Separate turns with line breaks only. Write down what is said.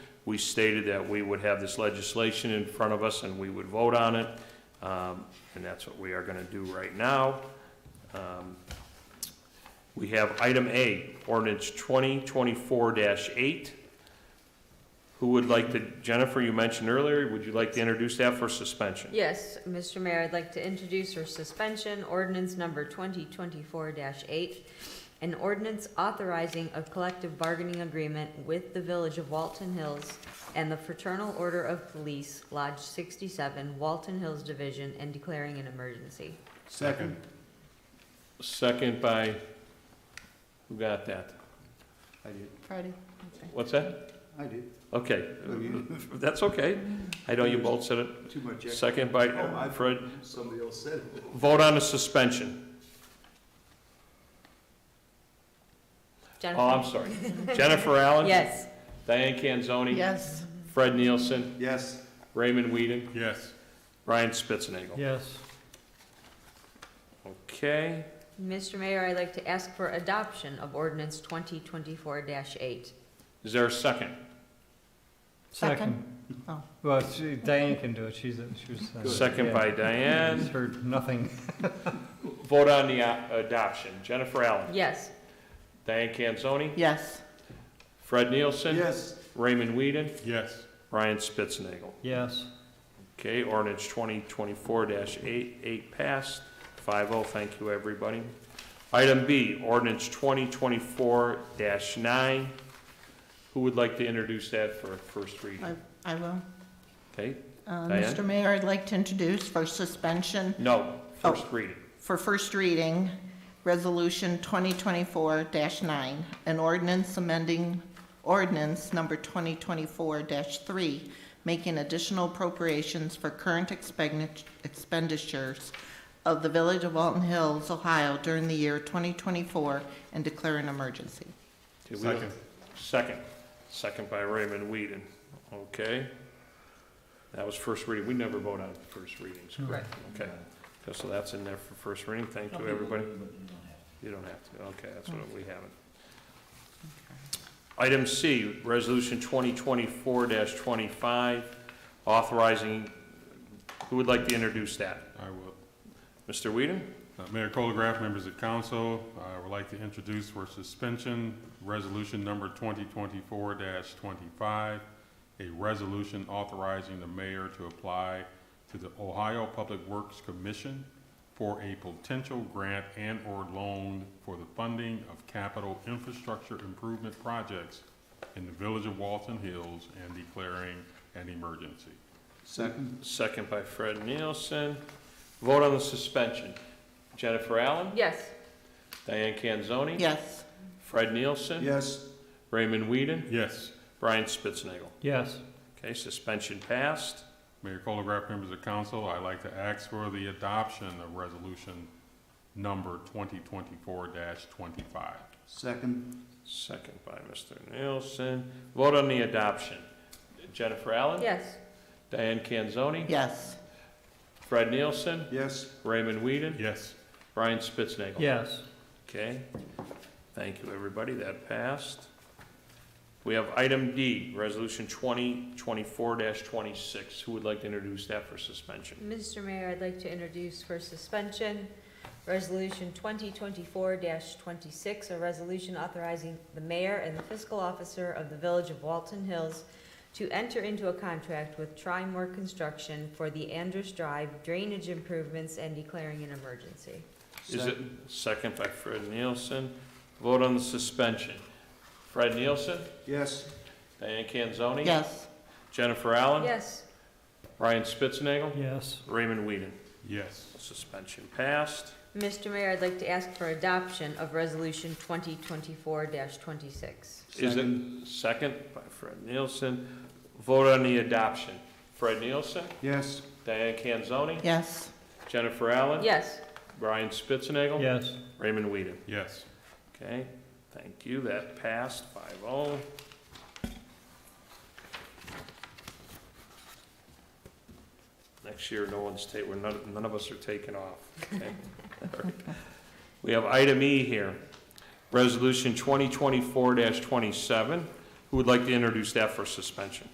we stated that we would have this legislation in front of us and we would vote on it. Um, And that's what we are going to do right now. Um, We have item A, ordinance 2024-8. Who would like to, Jennifer, you mentioned earlier, would you like to introduce that for suspension?
Yes, Mr. Mayor, I'd like to introduce for suspension ordinance number twenty twenty-four eight. An ordinance authorizing a collective bargaining agreement with the Village of Walton Hills and the Fraternal Order of Police Lodge sixty-seven, Walton Hills Division, and declaring an emergency.
Second.
Second by, who got that?
I did,
Friday.
What's that?
I did.
Okay,
Okay.
that's okay. I know you both said it.
Too much. ex-
Second by
Oh, I-
Fred.
Somebody else said it.
Vote on the suspension. Oh, I'm
Jennifer?
sorry. Jennifer Allen?
Yes.
Diane Canzoni?
Yes.
Fred Nielsen?
Yes,
Raymond Whedon?
Yes.
Ryan Spitznagel.
Yes.
Okay,
Mr. Mayor, I'd like to ask for adoption of ordinance twenty twenty-four eight.
is there a second?
Second.
Oh.
Well, she- Diane can do it, she's, a- she was. uh,
Second
yeah.
by
She's
Diane.
Heard nothing.
Vote on the a- adoption. Jennifer Allen?
Yes.
Diane Canzoni?
Yes.
Fred Nielsen?
yes,
Raymond Whedon?
Yes.
Ryan Spitznagel.
Yes.
Okay, ordinance twenty twenty-four dash eight, eight passed, five oh, thank you, everybody. Item B, ordinance twenty twenty-four dash nine. Who would like to introduce that for a first reading?
I I will.
Okay,
Uh,
Diane?
Mr. Mayor, I'd like to introduce for suspension
no, first reading.
for first reading, Resolution 2024-9, an ordinance amending ordinance number 2024-3, making additional appropriations for current expegni- expenditures of the Village of Walton Hills, Ohio during the year 2024 and declare an emergency.
Okay, we have- Second, second by Raymond Whedon, okay? That was first reading, we never vote on first readings, correct? Okay, Okay, so that's in there for first reading, thank you, everybody. You don't have to, okay, that's what we haven't. Item C, Resolution twenty twenty-four twenty-five, authorizing, who would like to introduce that?
I will.
Mr. Whedon?
Uh, Mayor Colgraf, members of council, I would like to introduce for suspension Resolution Number 2024-25, a resolution authorizing the mayor to apply to the Ohio Public Works Commission for a potential grant and/or loan for the funding of capital infrastructure improvement projects in the village of Walton Hills and declaring an emergency.
second,
Second by Fred Nielsen. Vote on the suspension. Jennifer Allen?
Yes.
Diane Canzoni?
Yes.
Fred Nielsen?
yes,
Raymond Whedon?
Yes.
Brian Spitznagel.
Yes.
Okay, suspension passed.
Mayor Colograph, members of council, I'd like to ask for the adoption of resolution number twenty twenty-four twenty-five.
second,
Second by Mr. Nielsen. Vote on the adoption. Jennifer Allen?
Yes.
Diane Canzoni?
Yes.
Fred Nielsen?
yes,
Raymond Whedon?
Yes.
Brian Spitznagel.
Yes.
Okay. Thank you, everybody. That passed. We have item D, Resolution 2024-26. Who would like to introduce that for suspension?
Mr. Mayor, I'd like to introduce for suspension, Resolution 2024-26, a resolution authorizing the mayor and the fiscal officer of the Village of Walton Hills to enter into a contract with Trimore Construction for the Andrews Drive drainage improvements and declaring an emergency.
Is it, second by Fred Nielsen. Vote on the suspension. Fred Nielsen?
yes,
Diane Canzoni?
Yes.
Jennifer Allen?
Yes.
Ryan Spitznagel?
Yes.
Raymond Whedon?
Yes.
Suspension passed.
Mr. Mayor, I'd like to ask for adoption of Resolution 2024-26.
Is it second by Fred Nielsen? Vote on the adoption. Fred Nielsen?
yes,
Diane Canzoni?
Yes.
Jennifer Allen?
Yes.
Brian Spitznagel?
Yes.
Raymond Whedon?
Yes.
Okay, thank you, that passed oh. 5-0. Next year, no one's ta, we're none, none of us are taking off, okay? We have item E here, resolution twenty twenty-four twenty-seven. Who would like to introduce that for suspension?